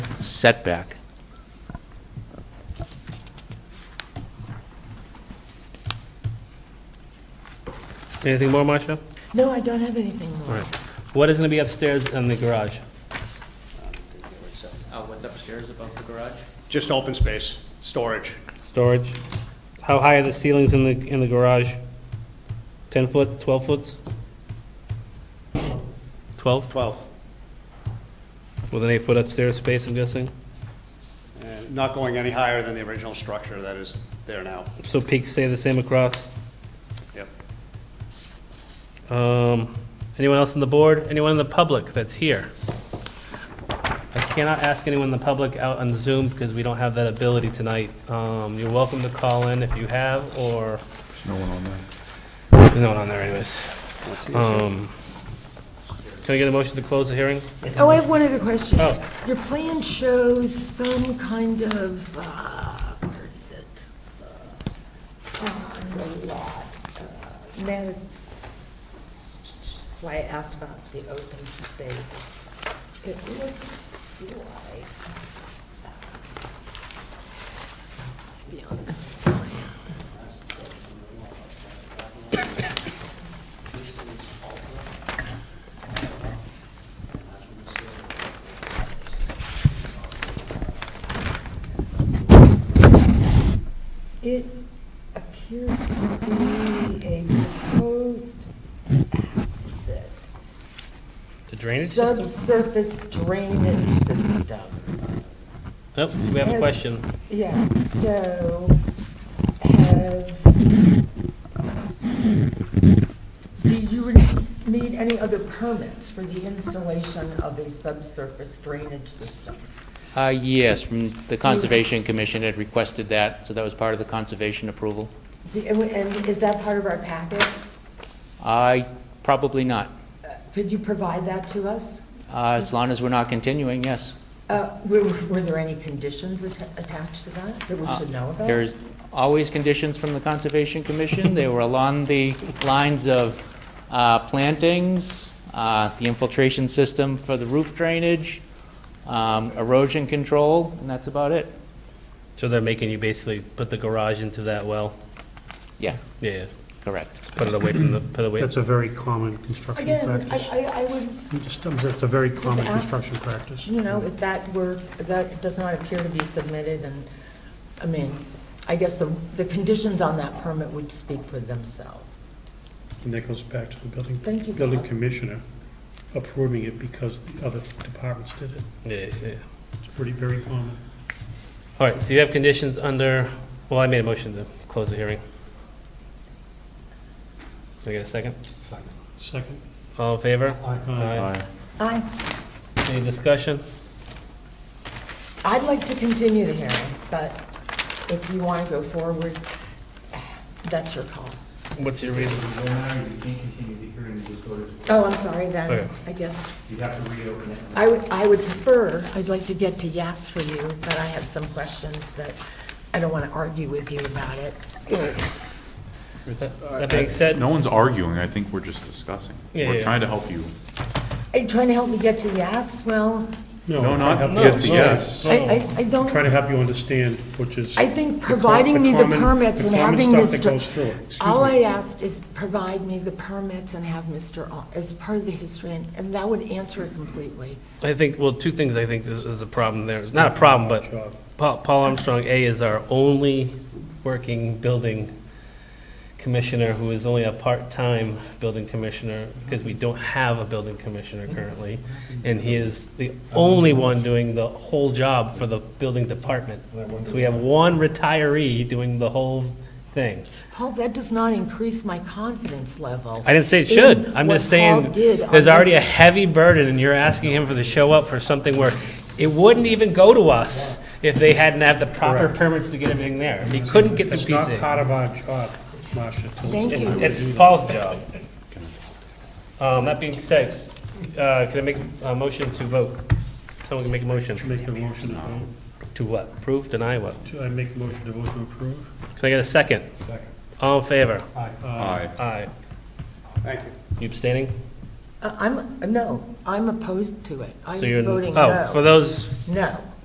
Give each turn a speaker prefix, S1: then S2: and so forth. S1: setback.
S2: Anything more, Marcia?
S3: No, I don't have anything
S2: All
S3: more.
S2: right. What is going to be upstairs in the garage?
S4: Uh, what's upstairs above the garage?
S5: Just open space, storage.
S2: Storage? How high are the ceilings in the, in the garage? 10 foot, 12 foots? 12,
S5: 12.
S2: with an eight foot upstairs space, I'm guessing?
S5: And Not going any higher than the original structure that is there now.
S2: So peaks stay the same across?
S5: Yep.
S2: Um, anyone else on the board? Anyone in the public that's here? I cannot ask anyone in the public out on Zoom because we don't have that ability tonight. Um, you're welcome to call in if you have, or. There's no one on there. There's no one on there anyways. Um, can I get a motion to close the hearing?
S3: Oh, I have one other question.
S2: Oh.
S3: Your plan shows some kind of, uh, where is it? Uh, On the lot. uh, That's that's why I asked about the open space. It looks like, let's be on this plan. It appears to be a proposed, what is it?
S2: The drainage system?
S3: Subsurface drainage system.
S2: Nope, we have a question.
S3: Yeah, so have, do you re- need any other permits for the installation of a subsurface drainage system?
S1: Uh, yes, from the Conservation Commission had requested that, so that was part of the conservation approval.
S3: Do- And is that part of our packet?
S1: I, probably not.
S3: Could you provide that to us?
S1: Uh, as long as we're not continuing, yes.
S3: Uh, Were were there any conditions atta- attached to that that we should know about?
S1: There's always conditions from the Conservation Commission. They were along the lines of uh, plantings, uh, the infiltration system for the roof drainage, um, erosion control, and that's about it.
S2: So they're making you basically put the garage into that well?
S1: Yeah,
S2: Yeah, yeah.
S1: correct.
S2: put it away from the, put it away.
S6: That's a very common construction
S3: Again, I,
S6: practice.
S3: I I would
S6: I'm just- That's a very common
S3: ask-
S6: construction practice.
S3: You know, if that were, that does not appear to be submitted, and, I mean, I guess the, the conditions on that permit would speak for themselves.
S6: And that goes back to the building,
S3: Thank you,
S6: building
S3: Bob.
S6: commissioner approving it because the other departments did it.
S2: Yeah, yeah.
S6: It's pretty, very common.
S2: All right, so you have conditions under, well, I made a motion to close the hearing. Do I get a second?
S6: Second. Uh,
S2: All in favor?
S6: Aye.
S3: I,
S2: Any discussion?
S3: I'd like to continue the hearing, but if you want to go forward, that's your call.
S2: What's your reason?
S7: If you don't mind, you can't continue the hearing, you just go to,
S3: Oh, I'm sorry, then,
S2: Okay.
S3: I guess,
S7: you have to reopen it.
S3: I would, I would prefer, I'd like to get to yes for you, but I have some questions that I don't want to argue with you about it.
S2: That being said,
S8: No one's arguing, I think we're just discussing.
S2: Yeah, yeah,
S8: We're
S2: yeah.
S8: trying to help you.
S3: Are you trying to help me get to yes? Well,
S8: No, not
S6: try to
S8: get
S6: help-
S8: the
S6: no,
S8: yes.
S6: no,
S3: I, I,
S6: no.
S3: I don't.
S6: Try to help you understand, which is.
S3: I think
S6: the com-
S3: providing me the
S6: common-
S3: permits
S6: the
S3: and
S6: common
S3: having
S6: stuff that goes through
S3: Mr.
S6: it. Excuse
S3: All I
S6: me.
S3: asked is provide me the permits and have Mr. Al- as part of the history, and, and that would answer it completely.
S2: I think, well, two things I think is, is a problem there. It's Not a problem, but
S6: Job.
S2: Paul, Paul Armstrong, A, is our only working building commissioner who is only a part-time building commissioner because we don't have a building commissioner currently. And he is the only one doing the whole job for the building department. So we have one retiree doing the whole thing.
S3: Paul, that does not increase my confidence level.
S2: I didn't say it
S3: in
S2: should. I'm
S3: what
S2: just saying,
S3: Paul did on
S2: there's already a
S3: this-
S2: heavy burden, and you're asking him for the show up for something where it wouldn't even go to us if they hadn't had the proper permits to get everything there. He couldn't get the
S6: It's not
S2: PC.
S6: part of our job, Marcia. to-
S3: Thank you.
S2: It's Paul's job. Um, that being said, uh, can I make a motion to vote? Someone can make a motion.
S6: Make a motion to vote,
S2: To what? Approve, deny, what?
S6: to- I make a motion to vote to approve. Uh,
S2: Can I get a second?
S6: Second.
S2: All in favor?
S8: Aye.
S2: Aye.
S5: Thank you.
S2: You abstaining?
S3: Uh, I'm, no, I'm opposed to it. I'm
S2: So you're
S3: voting
S2: Oh, for
S3: no.
S2: those
S3: No.